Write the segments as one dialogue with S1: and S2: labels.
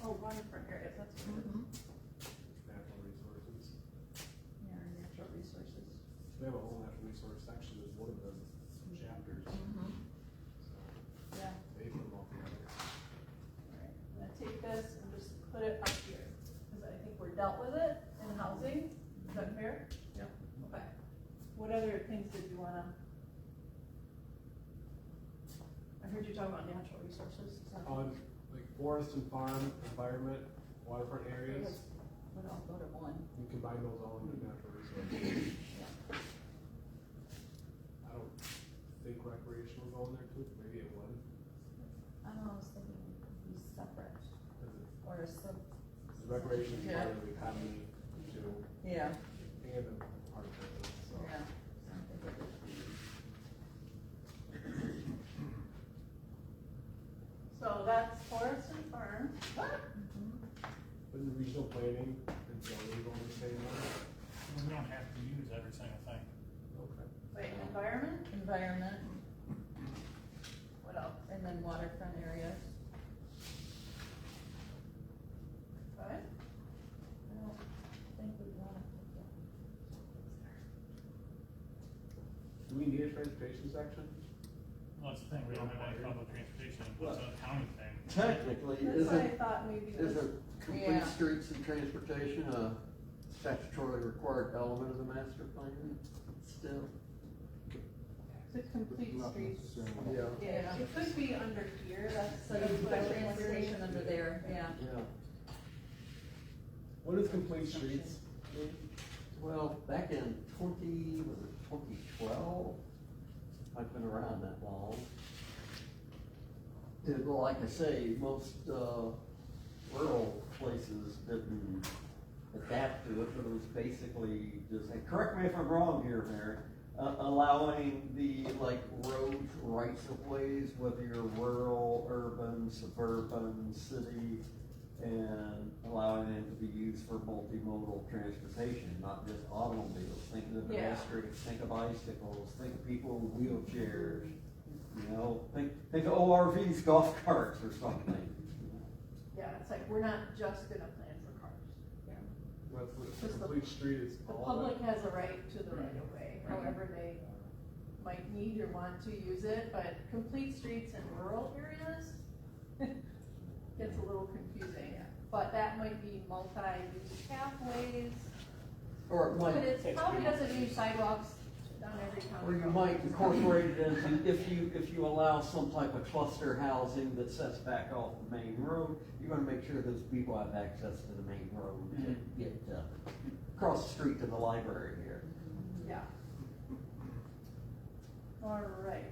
S1: whole one for areas, that's what it is.
S2: natural resources.
S1: Yeah, our natural resources.
S2: They have a whole natural resource section as one of the chapters, so
S1: Yeah,
S2: they put them all together.
S1: alright, I'm gonna take this and just put it up here, cause I think we're dealt with it in housing, is that fair?
S2: Yeah.
S1: Okay, what other things did you wanna? I heard you talk about natural resources, is that?
S2: On, like, forest and farm, environment, waterfront areas,
S1: Would all go to one,
S2: you combine those all into natural resources.
S1: yeah.
S2: I don't think recreational go in there too, maybe it would,
S1: I don't know, I was thinking it could be separate,
S2: because it's,
S1: or a sub.
S2: because recreation is part of the economy too,
S3: Yeah,
S2: and a part of it, so.
S3: yeah.
S1: So that's forest and farm.
S2: But the regional planning and zoning go in the same way?
S4: We don't have to use every single thing.
S2: Okay.
S1: Wait, environment,
S3: Environment,
S1: what else?
S3: and then waterfront areas.
S1: What?
S3: I don't think we want to.
S2: Do we need a transportation section?
S4: Well, that's the thing, we don't have any public transportation, it's a county thing.
S5: Technically,
S1: That's why I
S5: isn't,
S1: thought maybe this.
S5: isn't complete
S3: Yeah.
S5: streets and transportation a statutorily required element of the master plan still?
S1: The complete
S6: Not
S1: streets.
S6: necessarily.
S5: Yeah,
S1: Yeah, it could be under here, that's.
S3: So you
S1: that's
S3: put
S1: what I was wondering.
S3: transportation under there, yeah.
S5: yeah.
S2: What is complete streets?
S5: Well, back in twenty, was it twenty twelve? I've been around that long. And well, like I say, most, uh, rural places didn't adapt to it, but it was basically just, and correct me if I'm wrong here, Mayor, uh, allowing the, like, roads, rights of ways, whether you're rural, urban, suburban, city, and allowing them to be used for multimodal transportation, not just automobiles. Think of the
S1: Yeah.
S5: pedestrians, think of bicycles, think of people in wheelchairs, you know, think, think of ORVs, golf carts or something.
S1: Yeah, it's like, we're not just gonna plan for cars.
S2: That's
S1: the-
S2: what, complete street is
S1: The
S2: all.
S1: public has a right to the right of way, however they might need or want to use it, but complete streets in rural areas gets a little confusing, but that might be multi-use pathways,
S5: Or it
S1: but
S5: might,
S1: it probably doesn't need sidewalks on every town.
S5: or you might incorporate it into, if you, if you allow some type of cluster housing that sets back off the main road, you wanna make sure those people have access to the main road to get, uh, across the street to the library here.
S1: Yeah. All right.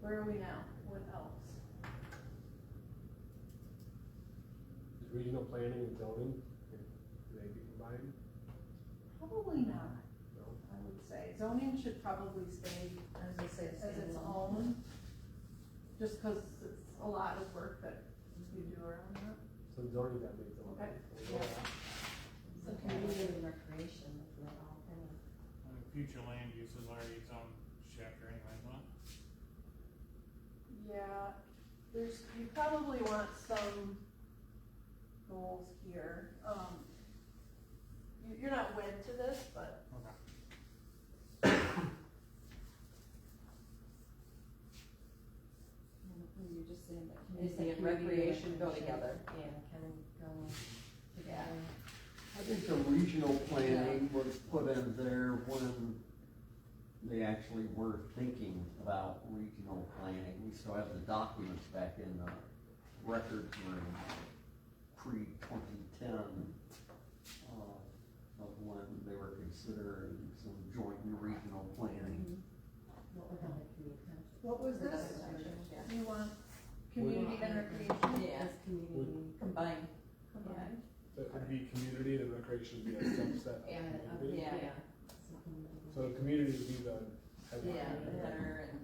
S1: Where are we now? What else?
S2: Is regional planning and zoning, can they be combined?
S1: Probably not,
S2: No?
S1: I would say. Zoning should probably stay
S3: I was gonna say it's.
S1: as its own. Just cause it's a lot of work that you do around that.
S2: So zoning that makes them.
S1: Okay.
S7: So community and recreation, if we're all kind of
S4: I mean, Future land use is already its own chapter anyway, but
S1: Yeah, there's, you probably want some goals here. Um, you, you're not wed to this, but
S4: okay.
S7: you're just saying that.
S3: Community and recreation go together.
S7: Yeah, kind of go together.
S5: I think the regional planning was put in there when they actually were thinking about regional planning. We still have the documents back in the records room, pre-twenty-ten, uh, of when they were considering some joint and regional planning.
S7: What we're having community connection.
S1: what was this?
S3: Yeah.
S1: You want community and recreation
S3: Yeah,
S7: As community.
S3: combined,
S1: combined?
S2: That would be community and recreation would be a subset
S7: uh, Yeah,
S2: of
S7: of-
S2: community.
S3: Yeah.
S7: so community.
S2: So community would be the
S3: yeah,
S2: headline.
S3: better and.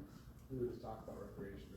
S2: We would just talk about recreation